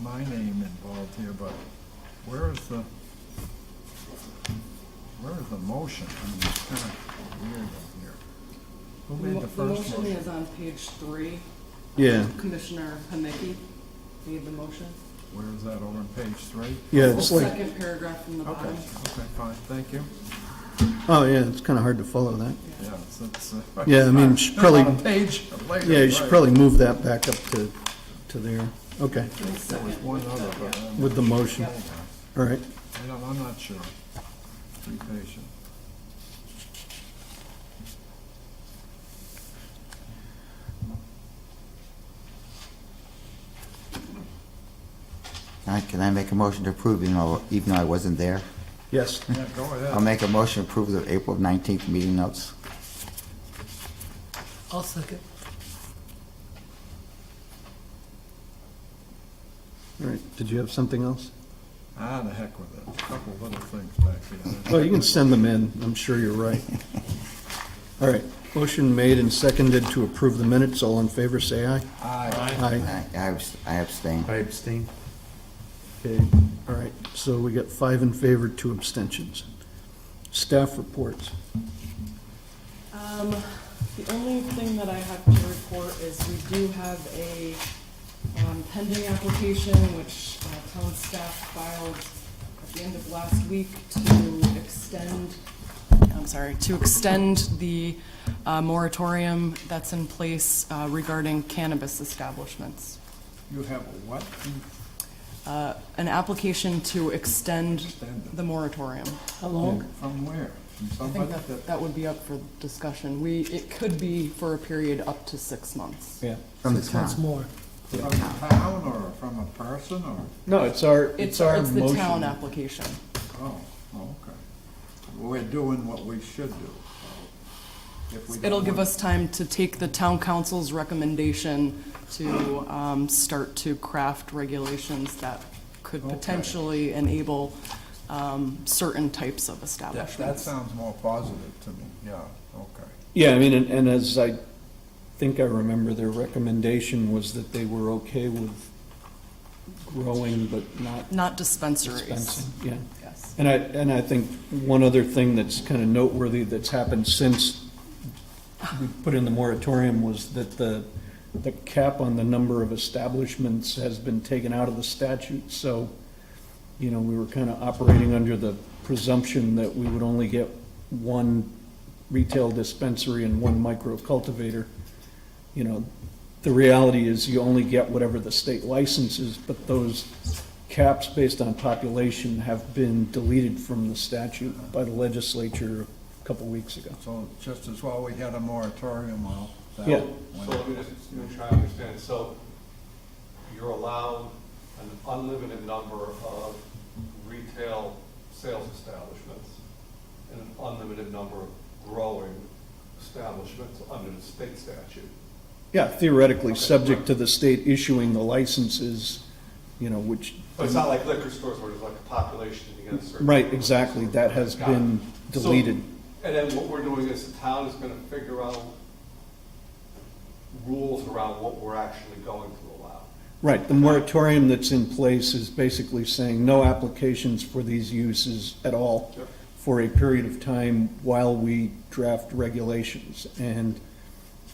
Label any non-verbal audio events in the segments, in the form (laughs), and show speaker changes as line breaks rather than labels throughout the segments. my name involved here, but where is the, where is the motion? I mean, it's kind of weird up here. Who made the
The
first
motion
motion?
is on page three.
Yeah,
Commissioner Hamicki made the motion.
Where is that, over on page three?
yeah, it's like,
Second paragraph from the
Okay,
bottom.
okay, fine, thank you.
oh, yeah, it's kind of hard to follow that.
Yeah, it's, it's. uh, (laughs)
Yeah, I mean, you should probably-
On a page later.
Yeah, you should
right.
probably move that back up to, to there. Okay,
There was one other, but I'm,
with the motion. All right.
I don't- I'm not sure. Be patient.
All right, can I make a motion to approve, even though, even though I wasn't there?
Yes.
Yeah, go
Um,
I'll
ahead.
make a motion to approve the April 19th meeting notes.
I'll second.
All right. Did you have something else?
Ah, the heck with it. Couple little things back
Oh,
here.
you can send them in. I'm sure you're right. All right. Motion made and seconded to approve the minutes. All in favor, say aye.
Aye.
Aye.
I I abs- I abstain.
I abstain.
Okay. All right. So we got five in favor, two abstentions. Staff reports.
Um, the only thing that I have to report is we do have a, um, pending application which, uh, town staff filed at the end of last week to extend, I'm sorry, to extend the, uh, moratorium that's in place uh, regarding cannabis establishments.
You have a what?
Uh, an application to extend
Extend it.
the moratorium.
How long?
From where? From
I think
somebody?
that, that would be up for discussion. We, it could be for a period up to six months.
Yeah.
From the
Six months
town.
more.
From a town or from a person or?
No, it's our,
It's, it's the town application.
Oh, oh, okay. We're doing what we should do. If we don't
It'll give
want-
us time to take the town council's recommendation to, um, start to craft regulations that could
Okay.
potentially enable, um, certain types of
That, that
establishments.
sounds more positive to me, yeah, okay.
Yeah, I mean, and, and as I think I remember, their recommendation was that they were okay with growing but not
Not dispensaries,
dispensing, yeah.
yes.
And I, and I think one other thing that's kind of noteworthy that's happened since we put in the moratorium was that the, the cap on the number of establishments has been taken out of the statute, so, you know, we were kind of operating under the presumption that we would only get one retail dispensary and one micro cultivator. You know, the reality is you only get whatever the state licenses, but those caps based on population have been deleted from the statute by the legislature a couple weeks ago.
So just as well, we had a moratorium on that.
Yeah.
So let me just make sure I understand. So you're allowed an unlimited number of retail sales establishments and an unlimited number of growing establishments under the state statute.
Yeah, theoretically,
Okay.
subject to the state issuing the licenses, you know, which,
But it's not like liquor stores where there's like a population and you get a certain.
right, exactly, that has
Got it.
been
So-
deleted.
And then what we're doing is the town is gonna figure out rules around what we're actually going to allow.
Right, the moratorium that's in place is basically saying no applications for these uses at all
Yep.
for a period of time while we draft regulations. And,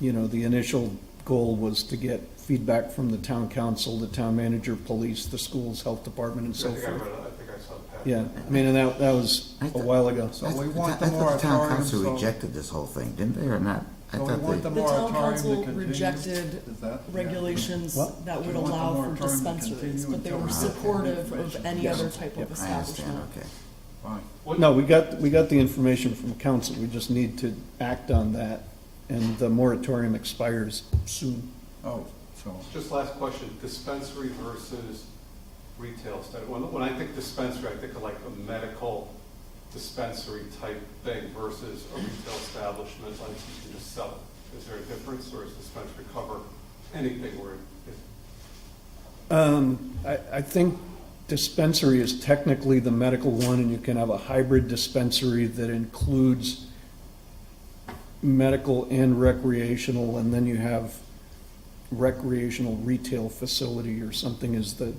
you know, the initial goal was to get feedback from the town council, the town manager, police, the schools, health department, and
I
so
think I read
forth.
it, I think I saw the packet.
Yeah, I mean, and that, that was
I
a
thought-
while ago.
So we
I- I
want the
thought- I thought the town
moratorium,
council
so.
rejected this whole thing, didn't they, or not? I
So we
thought
want the
they,
The town
moratorium to
council
continue?
rejected
Is that- yeah.
regulations
What?
that
Do
would
you want the
allow
moratorium
for
to
dispensaries,
continue
but they
until
were
we get
supportive of
information?
any
Yes.
other type
Yep.
of
I understand,
establishment.
okay.
Fine.
What-
No, we got, we got the information from council, we just need to act on that, and the moratorium expires soon.
Oh, so,
Just last question, dispensary versus retail study. When, when I think dispensary, I think of like a medical dispensary type thing versus a retail establishment, like you can just sell it. Is there a difference, or is dispensary cover anything where it
Um, I, I think dispensary is technically the medical one, and you can have a hybrid dispensary that includes medical and recreational, and then you have recreational retail facility or something is the,